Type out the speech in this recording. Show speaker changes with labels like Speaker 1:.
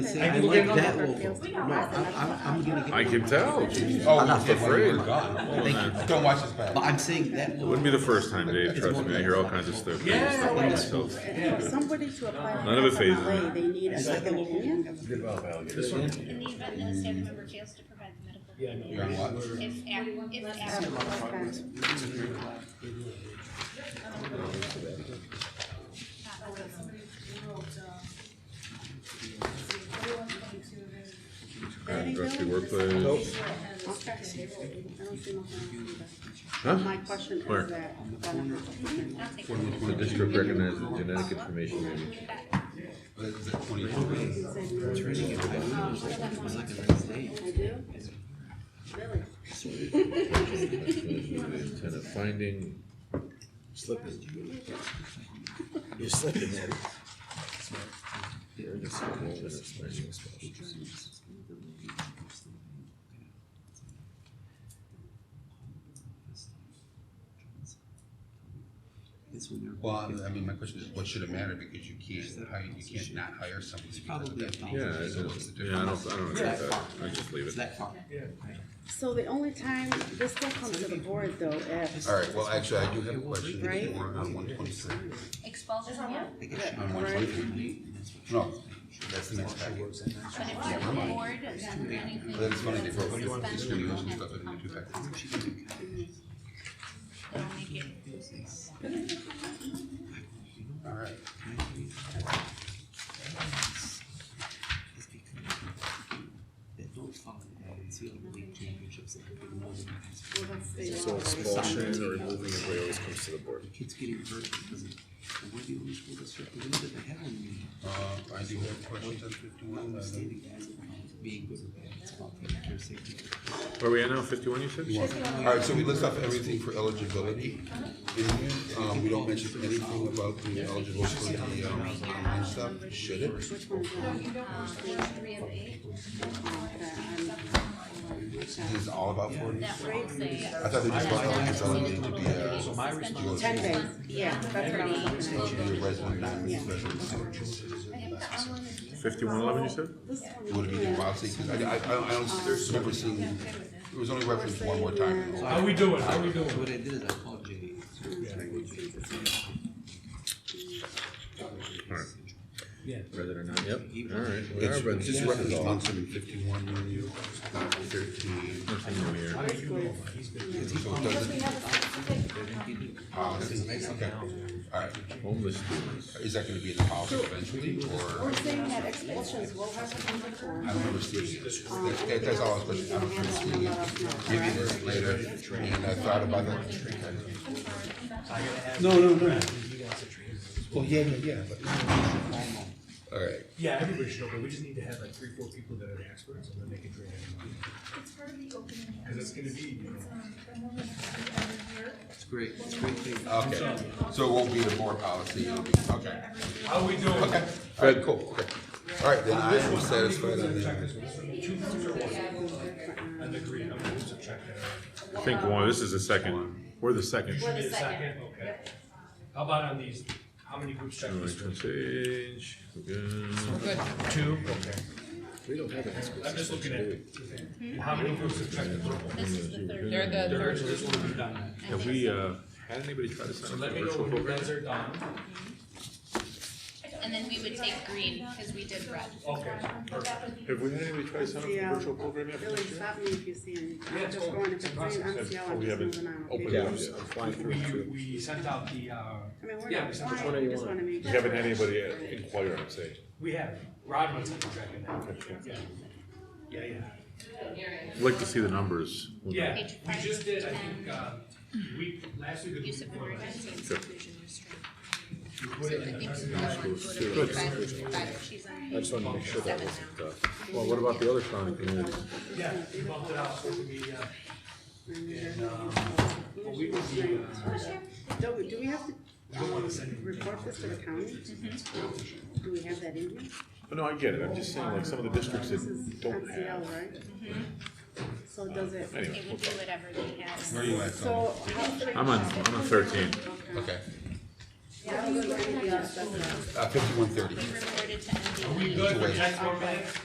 Speaker 1: See,
Speaker 2: I
Speaker 1: I
Speaker 2: can
Speaker 1: like
Speaker 2: get
Speaker 1: that
Speaker 2: another
Speaker 1: wolf.
Speaker 2: Fairfield.
Speaker 1: No, I'm, I'm, I'm gonna get.
Speaker 3: I can tell. Jeez.
Speaker 4: Oh,
Speaker 3: I'm
Speaker 4: he's
Speaker 3: afraid.
Speaker 4: God. Don't watch his back.
Speaker 1: But I'm saying that wolf.
Speaker 3: Wouldn't be the first time, Dave. Trust me, I hear all kinds of stuff. stuff like myself.
Speaker 2: For somebody to apply for
Speaker 3: None of it
Speaker 2: FMLA,
Speaker 3: phases me.
Speaker 2: They need a second opinion.
Speaker 5: In the event that a staff member fails to provide the medical.
Speaker 4: You're on watch.
Speaker 5: If, ac- if applicable.
Speaker 3: Dressy workplace.
Speaker 2: Okay. I don't see nothing else
Speaker 3: Huh?
Speaker 2: either. My question
Speaker 3: Where?
Speaker 2: is that.
Speaker 3: um,
Speaker 2: benefit.
Speaker 5: Not take-
Speaker 3: The district recognizes genetic information. maybe.
Speaker 2: I do? Really?
Speaker 3: Tenant finding.
Speaker 6: You're slipping there.
Speaker 4: Well, I mean, my question is, what should it matter, because you can't hire, you can't not hire someone because of that.
Speaker 3: Yeah, I
Speaker 4: So
Speaker 3: don't,
Speaker 4: what's the
Speaker 3: yeah, I
Speaker 4: difference?
Speaker 3: don't, I don't agree with that. I just leave
Speaker 1: It's
Speaker 3: it.
Speaker 1: that far.
Speaker 2: So the only time, this still comes to the board though, if,
Speaker 4: All right, well, actually, I do have a question, if
Speaker 2: Right?
Speaker 4: you want, on one twenty-three,
Speaker 5: Expulsion, yeah,
Speaker 4: on one twenty-three, no, that's the next packet.
Speaker 5: but if it's the board, then anything.
Speaker 4: But it's funny, they broke it,
Speaker 5: suspend
Speaker 4: it's
Speaker 5: the
Speaker 4: gonna be
Speaker 5: permanent
Speaker 4: stuff in the two packets.
Speaker 5: They'll make it-
Speaker 4: All right,
Speaker 1: That don't follow that. It's the other league championships. that happen more than that.
Speaker 2: well, that's the.
Speaker 6: So expulsion or removing employee always comes to the board.
Speaker 1: The kids getting hurt because of, and we're the only school district in the league that have one.
Speaker 4: uh, I do have a question on fifty-one, uh,
Speaker 1: Standing guys about being good or bad. It's about taking care of safety.
Speaker 3: Where are we at now? Fifty-one, you
Speaker 4: you
Speaker 3: said?
Speaker 4: want- all right, so we list off everything for eligibility, in here, um, we don't mention anything about the eligible for the, um, online stuff, should it?
Speaker 2: Which one's that?
Speaker 5: uh, Three of eight, Um,
Speaker 4: This is all about four days?
Speaker 5: that would say.
Speaker 4: I thought they just want
Speaker 5: not
Speaker 4: eligibility
Speaker 5: exceed a
Speaker 4: to be
Speaker 5: total
Speaker 4: a
Speaker 5: of suspended
Speaker 4: responsibility.
Speaker 2: Ten days,
Speaker 5: funds
Speaker 2: yeah,
Speaker 5: beyond
Speaker 2: that's what I was
Speaker 5: 30
Speaker 2: looking at.
Speaker 5: local-
Speaker 4: You're a resident, non-resident, so
Speaker 3: Fifty-one eleven, you said?
Speaker 2: This
Speaker 4: it
Speaker 2: one,
Speaker 4: would have been wild, because I, I, I don't, I don't remember seeing, it was only referenced one more time.
Speaker 1: So I-
Speaker 7: How we doing? How we doing?
Speaker 1: What I did is I called Jay.
Speaker 3: Rather than not, yep. All right. We
Speaker 4: It's
Speaker 3: are, but
Speaker 4: it's just referenced
Speaker 3: all.
Speaker 4: on seven fifty-one, when you, not thirteen,
Speaker 3: Nothing new here.
Speaker 4: so it doesn't. Policy, okay, alright,
Speaker 3: Homeless students.
Speaker 4: is that gonna be in the policy eventually, or,
Speaker 2: we're saying that expulsions will have to come before.
Speaker 4: I don't remember seeing it. That, that, that's all I was questioning, I don't remember seeing it, maybe there's later, and I thought about that. No, no, no. Well, yeah, yeah, yeah, but. All right,
Speaker 7: Yeah, everybody should know, but we just need to have like three, four people that are the experts and then they can train everybody. Cause it's gonna be, you know,
Speaker 1: It's great. It's a great thing.
Speaker 4: okay, so it won't be the board policy, it'll be, okay,
Speaker 5: um,
Speaker 7: how we doing?
Speaker 4: okay, all right, cool, okay. All right, then I am satisfied on that.
Speaker 7: Two rooms or one? And the green, how many rooms are checked out?
Speaker 3: I think one, this is the second. We're the second.
Speaker 7: Need a second, okay. How about on these, how many groups checked
Speaker 3: Going
Speaker 7: this
Speaker 3: to
Speaker 7: room?
Speaker 3: page. Good.
Speaker 7: Two, okay. We don't have an expert. I'm just looking at, Hmm? how many groups have checked this room?
Speaker 5: This is the third.
Speaker 8: They're the
Speaker 7: There
Speaker 8: third
Speaker 7: is this one done.
Speaker 3: Have we, uh, had anybody try to
Speaker 7: So
Speaker 3: sign up
Speaker 7: let
Speaker 3: for
Speaker 7: me
Speaker 3: a
Speaker 7: know
Speaker 3: virtual
Speaker 7: when you
Speaker 3: program?
Speaker 7: guys are done.
Speaker 5: And then we would take green, cause we did red.
Speaker 7: Okay, perfect.
Speaker 3: Have we had anybody try to sign up
Speaker 2: Yeah.
Speaker 3: for a virtual program yet?
Speaker 2: Really, stop me if you see any, I'm just going, if it's green, I'm still, I'm
Speaker 3: We
Speaker 2: just
Speaker 3: haven't
Speaker 2: moving on.
Speaker 3: opened
Speaker 2: okay?
Speaker 3: it up yet. I'm flying through.
Speaker 7: We, we sent out the, uh,
Speaker 2: I mean, we're
Speaker 7: yeah,
Speaker 2: not
Speaker 7: we sent out,
Speaker 2: applying, just wanna make.
Speaker 3: We haven't had anybody inquire, I'm saying.
Speaker 7: we have, Rodman's been checking that. Yeah, yeah, yeah.
Speaker 3: I'd like to see the numbers.
Speaker 7: Yeah,
Speaker 5: Page
Speaker 7: we
Speaker 5: five,
Speaker 7: just did, I think, uh, week, last week or the
Speaker 5: Use
Speaker 7: week
Speaker 5: of
Speaker 7: before
Speaker 5: word
Speaker 7: last.
Speaker 5: and inclusion restraint.
Speaker 7: We put it in the-
Speaker 5: I just wanted to make sure that wasn't.
Speaker 3: uh, Well, what about the other Sonic communities?
Speaker 7: Yeah, we bumped it out, so it would be, uh, and, um, but we would be, uh,
Speaker 2: Do, we- do we have to um,
Speaker 7: we don't wanna send it.
Speaker 2: report this to the county?
Speaker 3: Mm-hmm.
Speaker 2: Do we have that in here?
Speaker 3: But no, I get it, I'm just saying, like, some of the districts
Speaker 2: This is
Speaker 3: that don't
Speaker 2: MCL,
Speaker 3: have.
Speaker 2: right? So does it,
Speaker 3: Anyway,
Speaker 5: It would be whatever they
Speaker 4: Where
Speaker 5: have.
Speaker 4: are you at, Tom?
Speaker 2: so. how-
Speaker 3: I'm on, I'm on thirteen.
Speaker 2: Okay.
Speaker 4: Okay,
Speaker 2: Yeah, we were-
Speaker 9: uh, fifty-one thirty.
Speaker 2: we reverted to MDE.
Speaker 4: uh, Are we good for next board meeting?